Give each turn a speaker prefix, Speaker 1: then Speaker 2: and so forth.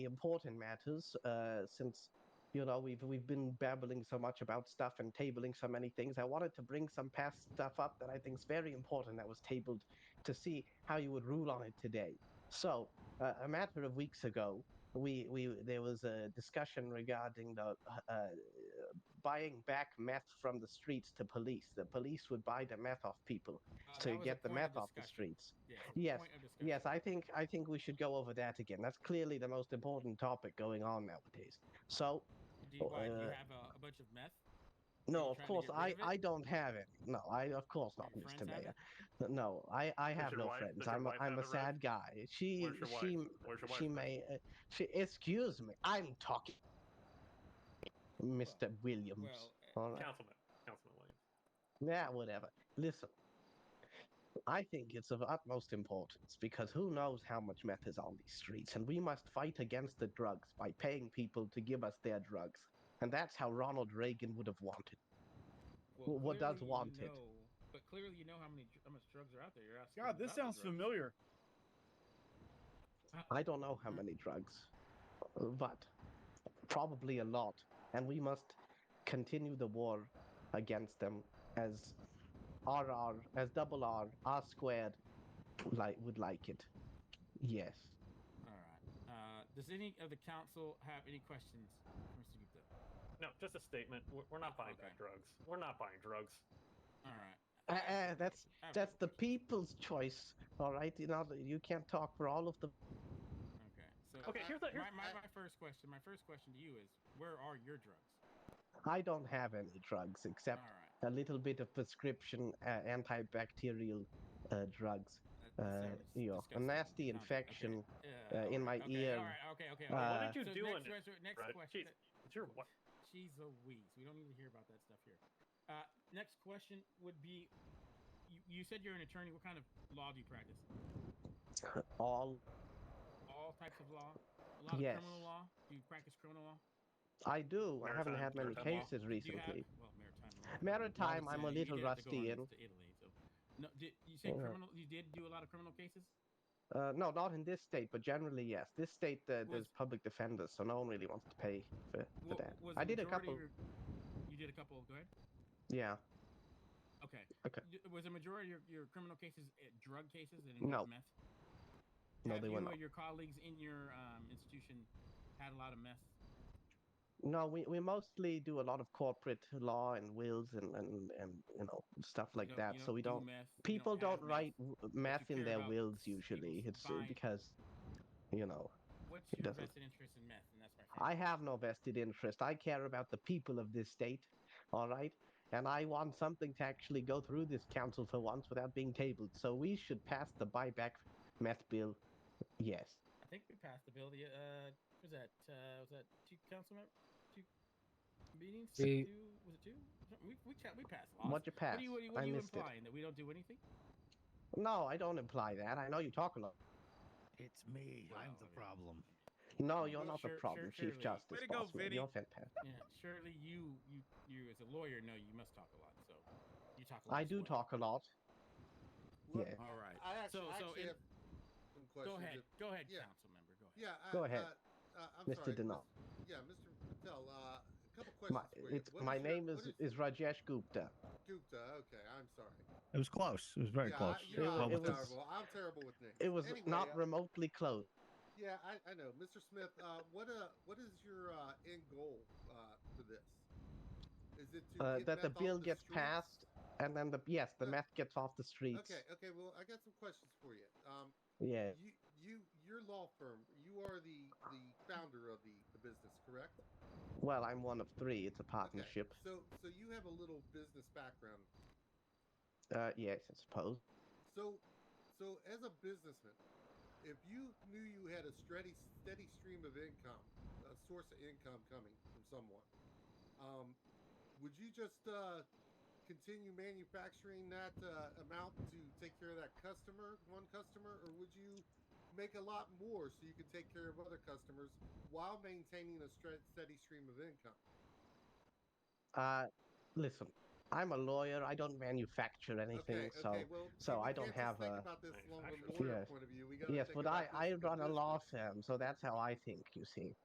Speaker 1: important matters uh, since you know we've we've been babbling so much about stuff and tabling so many things i wanted to bring some past stuff up that i think is very important that was tabled to see how you would rule on it today so uh, a matter of weeks ago we we there was a discussion regarding the uh, buying back meth from the streets to police the police would buy the meth off people
Speaker 2: Uh,
Speaker 1: to
Speaker 2: that was a
Speaker 1: get the
Speaker 2: point of
Speaker 1: meth off the
Speaker 2: discussion.
Speaker 1: streets Yes,
Speaker 2: Yeah, point of discussion.
Speaker 1: Yes, I think I think we should go over that again. That's clearly the most important topic going on nowadays. So,
Speaker 2: Do you, why, do you
Speaker 1: uh,
Speaker 2: have a, a bunch of meth?
Speaker 1: no,
Speaker 2: you
Speaker 1: of
Speaker 2: trying to
Speaker 1: course
Speaker 2: get
Speaker 1: I
Speaker 2: rid of it?
Speaker 1: I don't have it. No, I of course
Speaker 2: Do
Speaker 1: not,
Speaker 2: your
Speaker 1: Mr.
Speaker 2: friends have
Speaker 1: Mayor. No, I I have
Speaker 3: your
Speaker 1: no
Speaker 3: wife-
Speaker 1: friends.
Speaker 3: does your
Speaker 1: I'm a,
Speaker 3: wife
Speaker 1: I'm
Speaker 3: have
Speaker 1: a
Speaker 3: it, Rev?
Speaker 1: sad guy. She
Speaker 3: Where's your wife?
Speaker 1: she
Speaker 3: Where's your wife?
Speaker 1: she may uh, she excuse me. I'm talking, Mr. Williams.
Speaker 2: Well,
Speaker 1: All right.
Speaker 3: Councilman. Councilman Williams.
Speaker 1: Yeah, whatever. Listen, I think it's of utmost importance because who knows how much meth is on these streets, and we must fight against the drugs by paying people to give us their drugs. And that's how Ronald Reagan would have wanted.
Speaker 2: well,
Speaker 1: what does
Speaker 2: clearly you
Speaker 1: wanted?
Speaker 2: know- but clearly, you know how many dr- how much drugs are out there. You're asking.
Speaker 4: God, this
Speaker 2: about the
Speaker 4: sounds
Speaker 2: drugs.
Speaker 4: familiar.
Speaker 1: I don't know how many drugs, but probably a lot. And we must continue the war against them as RR, as double R, R squared like, would like it. Yes.
Speaker 2: All right. Uh, does any of the council have any questions, for Mr. Gupta?
Speaker 3: No, just a statement. We're, we're not buying
Speaker 2: Okay.
Speaker 3: back drugs. We're not buying drugs.
Speaker 2: All right.
Speaker 1: Uh, uh, that's
Speaker 2: I have
Speaker 1: That's the
Speaker 2: one question.
Speaker 1: people's choice, all right? You know, you can't talk for all of the.
Speaker 2: Okay. So
Speaker 3: Okay,
Speaker 2: uh,
Speaker 3: here's the- here's-
Speaker 2: my, my, my first question. My first question to you is, where are your drugs?
Speaker 1: I don't have any drugs
Speaker 2: All
Speaker 1: except
Speaker 2: right.
Speaker 1: a little bit of prescription uh, antibacterial uh, drugs, uh,
Speaker 2: That- that sounds
Speaker 1: you know, a
Speaker 2: disgusting.
Speaker 1: nasty
Speaker 2: Sounds- okay.
Speaker 1: infection
Speaker 2: Yeah,
Speaker 1: uh, in my
Speaker 2: okay,
Speaker 1: ear.
Speaker 2: All right. Okay. Okay.
Speaker 1: Uh,
Speaker 2: okay.
Speaker 1: What
Speaker 3: did you
Speaker 2: so
Speaker 3: do
Speaker 2: Next,
Speaker 3: in it,
Speaker 2: question- next
Speaker 3: Brad?
Speaker 2: question.
Speaker 3: Jeez, It's your what?
Speaker 2: She's a wheeze. We don't need to hear about that stuff here. Uh, next question would be you, you said you're an attorney. What kind of law do you practice?
Speaker 1: All
Speaker 2: All types of law? A lot
Speaker 1: Yes.
Speaker 2: of criminal law? Do you practice criminal law?
Speaker 1: I do. I haven't
Speaker 3: Maritime-
Speaker 1: had many
Speaker 3: maritime law.
Speaker 1: cases
Speaker 2: Do you have,
Speaker 1: recently.
Speaker 2: well, maritime law.
Speaker 1: Maritime,
Speaker 2: Obviously,
Speaker 1: I'm a
Speaker 2: you
Speaker 1: little
Speaker 2: did have to go
Speaker 1: rusty
Speaker 2: on
Speaker 1: in. Uh-huh.
Speaker 2: to Italy, so. No, did, you said
Speaker 1: Yeah.
Speaker 2: criminal. You did do a lot of criminal cases?
Speaker 1: Uh, no, not in this state, but generally yes. This state uh, there's
Speaker 2: Was-
Speaker 1: public defenders, so no one really wants to pay for, for
Speaker 2: Wa-
Speaker 1: that.
Speaker 2: was
Speaker 1: I
Speaker 2: the
Speaker 1: did a
Speaker 2: majority
Speaker 1: couple.
Speaker 2: of your- you did a couple. Go ahead.
Speaker 1: Yeah,
Speaker 2: Okay.
Speaker 1: Okay.
Speaker 2: Y- Was a majority of your, your criminal cases uh, drug cases and
Speaker 1: No.
Speaker 2: meth?
Speaker 1: No,
Speaker 2: Have
Speaker 1: they
Speaker 2: you
Speaker 1: were
Speaker 2: or
Speaker 1: not.
Speaker 2: your colleagues in your um, institution had a lot of meth?
Speaker 1: No, we, we mostly do a lot of corporate law and wills and, and, and you know stuff
Speaker 2: You
Speaker 1: like
Speaker 2: don't-
Speaker 1: that.
Speaker 2: you
Speaker 1: so we
Speaker 2: do
Speaker 1: don't.
Speaker 2: meth, you
Speaker 1: People
Speaker 2: have
Speaker 1: don't, write
Speaker 2: meth.
Speaker 1: w- math
Speaker 2: you
Speaker 1: in
Speaker 2: care
Speaker 1: their
Speaker 2: about
Speaker 1: wills
Speaker 2: s- people
Speaker 1: usually. It's uh,
Speaker 2: buying-
Speaker 1: because, you know,
Speaker 2: What's
Speaker 1: it
Speaker 2: your
Speaker 1: doesn't.
Speaker 2: vested interest in meth? And that's my
Speaker 1: I
Speaker 2: first.
Speaker 1: have no vested interest. I care about the people of this state, all right? And I want something to actually go through this council for once without being tabled. So we should pass the buyback meth bill. Yes.
Speaker 2: I think we passed the bill. The uh, what was that uh, was that two council members, two meetings?
Speaker 5: We-
Speaker 2: two, was it two? We we, ca- we passed laws.
Speaker 1: What'd you pass?
Speaker 2: What are you, what are you, what
Speaker 1: I
Speaker 2: are you
Speaker 1: missed it.
Speaker 2: implying that we don't do anything?
Speaker 1: No, I don't imply that. I know you talk a lot.
Speaker 6: It's me. I'm
Speaker 2: Well,
Speaker 6: the
Speaker 2: yeah.
Speaker 6: problem.
Speaker 1: No, you're
Speaker 2: Well,
Speaker 1: not
Speaker 2: sure-
Speaker 1: the problem,
Speaker 2: sure-
Speaker 1: Chief
Speaker 2: surely.
Speaker 1: Justice.
Speaker 4: Way to go,
Speaker 1: Bossman.
Speaker 4: Vinny.
Speaker 1: You're fantastic.
Speaker 2: Yeah, surely you you you as a lawyer know you must talk a lot. So you talk. A lot
Speaker 1: I
Speaker 2: as
Speaker 1: do
Speaker 2: well.
Speaker 1: talk a lot.
Speaker 7: Look,
Speaker 1: Yeah.
Speaker 2: All right.
Speaker 7: I actually,
Speaker 2: So-
Speaker 7: I
Speaker 2: so
Speaker 7: actually
Speaker 2: in-
Speaker 7: have some
Speaker 2: Go
Speaker 7: questions.
Speaker 2: ahead.
Speaker 7: if-
Speaker 2: Go ahead,
Speaker 7: yeah.
Speaker 2: council member. Go ahead.
Speaker 7: Yeah. I,
Speaker 1: Go ahead,
Speaker 7: Uh, uh, I'm
Speaker 1: Mr.
Speaker 7: sorry,
Speaker 1: Denal.
Speaker 7: Mis- Yeah, Mr. Patel. Uh, a couple questions.
Speaker 1: My,
Speaker 7: for you.
Speaker 1: it's,
Speaker 7: What
Speaker 1: my
Speaker 7: your-
Speaker 1: name
Speaker 7: what
Speaker 1: is, is Rajesh Gupta.
Speaker 7: Gupta. Okay, I'm sorry.
Speaker 6: It was close. It was very
Speaker 7: yeah,
Speaker 6: close.
Speaker 7: I, you know,
Speaker 1: Well,
Speaker 7: I'm
Speaker 1: it was-
Speaker 7: terrible. I'm terrible with names.
Speaker 1: It was
Speaker 7: Anyway,
Speaker 1: not
Speaker 7: uh,
Speaker 1: remotely close.
Speaker 7: yeah, I, I know, Mr. Smith. Uh, what uh, what is your uh, end goal uh, for this? Is it to
Speaker 1: Uh,
Speaker 7: get
Speaker 1: that the
Speaker 7: meth off
Speaker 1: bill
Speaker 7: the
Speaker 1: gets
Speaker 7: streets?
Speaker 1: passed, and then the yes, the
Speaker 7: Uh,
Speaker 1: meth gets off the streets.
Speaker 7: Okay. Okay. Well, I got some questions for you. Um,
Speaker 1: Yeah.
Speaker 7: you, you, your law firm. You are the the founder of the, the business, correct?
Speaker 1: Well, I'm one of three. It's a
Speaker 7: Okay,
Speaker 1: partnership.
Speaker 7: So, so you have a little business background.
Speaker 1: Uh, yes, I suppose.
Speaker 7: So, so as a businessman, if you knew you had a steady, steady stream of income, a source of income coming from someone, um, would you just uh, continue manufacturing that uh, amount to take care of that customer, one customer, or would you make a lot more so you can take care of other customers while maintaining a stre- steady stream of income?
Speaker 1: Uh, listen, I'm a lawyer. I don't manufacture anything.
Speaker 7: Okay,
Speaker 1: so
Speaker 7: okay, well,
Speaker 1: so
Speaker 7: see, we
Speaker 1: I don't
Speaker 7: can't just
Speaker 1: have
Speaker 7: think
Speaker 1: a-
Speaker 7: about this from a
Speaker 3: Manufacturer.
Speaker 7: lawyer
Speaker 1: Yes.
Speaker 7: point of view. We gotta
Speaker 1: yes,
Speaker 7: think
Speaker 1: but I
Speaker 7: about
Speaker 1: I
Speaker 7: this from
Speaker 1: run a
Speaker 7: this
Speaker 1: law firm, so that's how I think. You see.